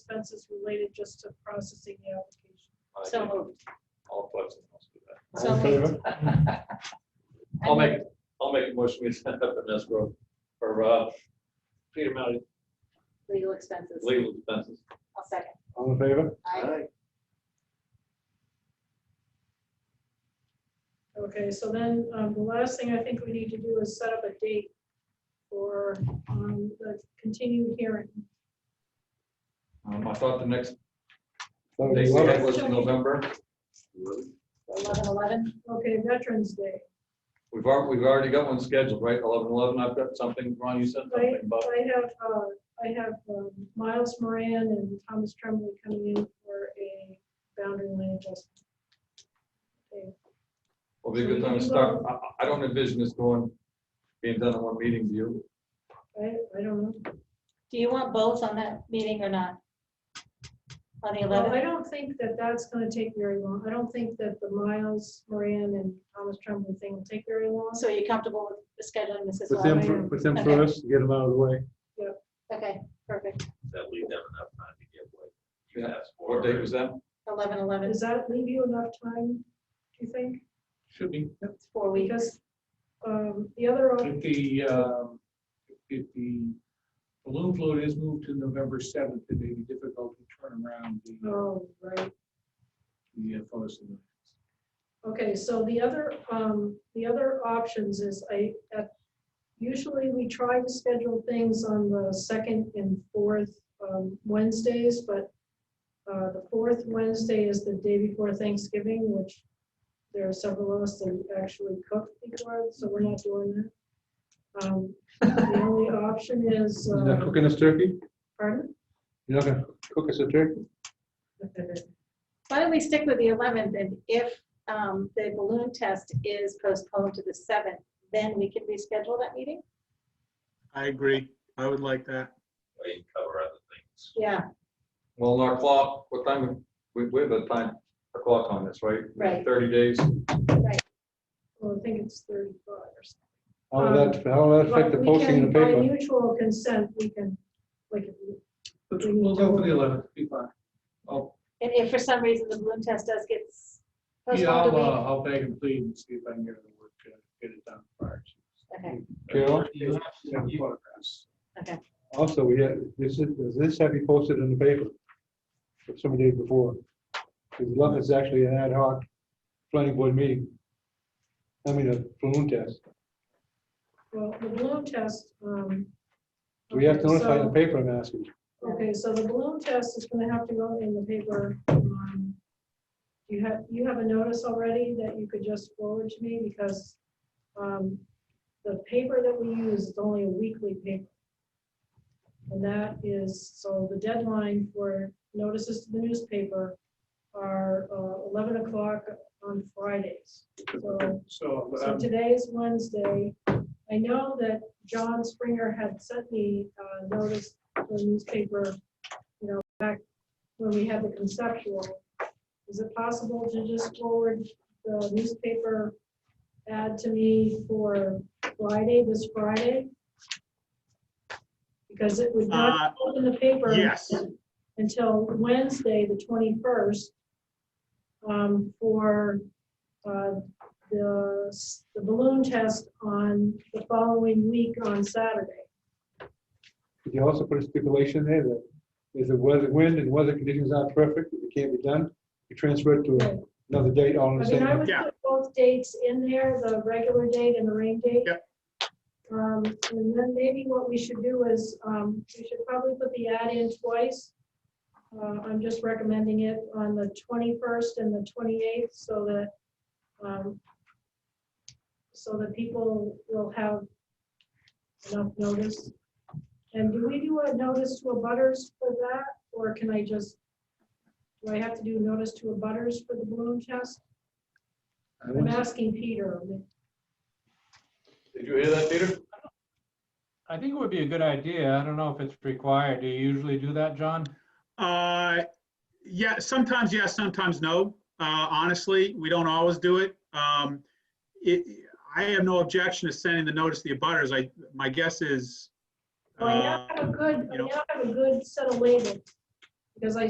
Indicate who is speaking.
Speaker 1: expenses related just to processing the application.
Speaker 2: I
Speaker 1: So
Speaker 2: think
Speaker 1: moved.
Speaker 2: All opposed, and I'll do that.
Speaker 1: So moved.
Speaker 2: I'll make, I'll make a motion, we set up an escrow for, uh, Peter Mounty
Speaker 3: Legal expenses.
Speaker 2: legal expenses.
Speaker 3: I'll second.
Speaker 4: All in favor?
Speaker 3: I,
Speaker 1: Okay, so then um, the last thing I think we need to do is set up a date for um, the continued hearing.
Speaker 2: Um, I thought the next
Speaker 4: So
Speaker 2: date we had
Speaker 4: eleven.
Speaker 2: was November.
Speaker 3: eleven eleven,
Speaker 1: Okay, Veterans Day.
Speaker 2: We've already, we've already got one scheduled, right? Eleven, eleven, I've got something, Ron, you said something about,
Speaker 1: I have, uh, I have um, Miles Moran and Thomas Tremblay coming in for a boundary line adjustment. Okay,
Speaker 2: will be a good time to start. I- I, I don't envision this going, being done in one meeting, do you?
Speaker 1: I, I don't know.
Speaker 3: do you want both on that meeting or not? On the
Speaker 1: Well, I
Speaker 3: eleventh?
Speaker 1: don't think that that's gonna take very long. I don't think that the Miles Moran and Thomas Tremblay thing will take very long.
Speaker 3: So you're comfortable with the scheduling, Mrs.
Speaker 4: With them,
Speaker 3: Lawler?
Speaker 4: fir- with them
Speaker 3: Okay.
Speaker 4: first, get them out of the way.
Speaker 3: Okay, perfect.
Speaker 5: that leave them enough time to get what you
Speaker 2: Yeah.
Speaker 5: asked for.
Speaker 2: What date was that?
Speaker 3: Eleven eleven,
Speaker 1: Does that leave you enough time, do you think?
Speaker 6: Should be,
Speaker 3: it's four weeks.
Speaker 1: Because um, the other, op-
Speaker 6: if the, um, if the balloon float is moved to November seventh, it may be difficult to turn around the,
Speaker 1: oh, right.
Speaker 6: the uh, photos. and-
Speaker 1: Okay, so the other, um, the other options is I, uh, usually we try to schedule things on the second and fourth, um, Wednesdays, but uh, the fourth Wednesday is the day before Thanksgiving, which there are several of us that actually cook before, so we're not doing that. Um, The only option is,
Speaker 4: You're not
Speaker 1: uh,
Speaker 4: cooking us turkey?
Speaker 1: pardon?
Speaker 4: You're not gonna cook us a turkey?
Speaker 3: Why don't we stick with the eleventh and if um, the balloon test is postponed to the seventh, then we can reschedule that meeting?
Speaker 7: I agree. I would like that.
Speaker 5: Or you can cover other things.
Speaker 3: Yeah,
Speaker 2: Well, our clock, what time, we, we have a time, a clock on this, right?
Speaker 3: Right.
Speaker 2: Thirty days.
Speaker 1: Well, I think it's thirty-five or something.
Speaker 4: How will that, how will that
Speaker 1: But
Speaker 4: affect the
Speaker 1: we
Speaker 4: posting in
Speaker 1: can,
Speaker 4: the
Speaker 1: by
Speaker 4: paper?
Speaker 1: mutual consent, we can, like, if we-
Speaker 6: Let's- We'll go for the eleventh, be fine. I'll,
Speaker 3: and if for some reason the balloon test does get s-
Speaker 6: yeah,
Speaker 3: postponed a
Speaker 6: I'll,
Speaker 3: week.
Speaker 6: uh, I'll beg and plead and see if I can get it to work, uh, get it done prior.
Speaker 3: Okay,
Speaker 4: Carol,
Speaker 6: You have photographs.
Speaker 4: also, we had, this is, does this have to be posted in the paper? For some days before. Because eleven is actually an ad hoc planning board meeting. I mean, a balloon test.
Speaker 1: Well, the balloon test. um,
Speaker 4: Do we have to
Speaker 1: okay,
Speaker 4: notify the
Speaker 1: so-
Speaker 4: paper, I'm asking?
Speaker 1: Okay, so the balloon test is gonna have to go in the paper. um, You have, you have a notice already that you could just forward to me because um, the paper that we use is only a weekly paper. And that is, so the deadline for notices to the newspaper are uh, 11 o'clock on Fridays. So
Speaker 6: So,
Speaker 1: So
Speaker 6: um,
Speaker 1: today is Wednesday. I know that John Springer had sent me uh, notice to the newspaper, you know, back when we had the conceptual. Is it possible to just forward the newspaper ad to me for Friday, this Friday? Because it would
Speaker 7: Uh,
Speaker 1: not go in the paper
Speaker 7: Yes,
Speaker 1: until Wednesday, the 21st, um, for uh, the s- the balloon test on the following week on Saturday.
Speaker 4: Could you also put a stipulation there that if the weather, wind and weather conditions aren't perfect, it can't be done, you transfer it to another date all
Speaker 1: I
Speaker 4: in the
Speaker 1: mean, I
Speaker 4: same.
Speaker 1: would
Speaker 7: Yeah.
Speaker 1: put both dates in there, the regular date and the rain date.
Speaker 7: Yep.
Speaker 1: Um, And then maybe what we should do is, um, we should probably put the ad in twice. Uh, I'm just recommending it on the 21st and the 28th so that, um, so that people will have enough notice. And do we do a notice to a butters for that, or can I just, do I have to do notice to a butters for the balloon test? I'm asking Peter.
Speaker 2: Did you hear that, Peter?
Speaker 8: I think it would be a good idea. I don't know if it's required. Do you usually do that, John?
Speaker 7: uh, yeah, sometimes yes, sometimes no. Uh, honestly, we don't always do it. Um, it, I have no objection to sending the notice to the abutters. I, my guess is.
Speaker 1: Well, I now
Speaker 7: uh,
Speaker 1: have a good, I
Speaker 7: you know-
Speaker 1: now have a good set of labels. because I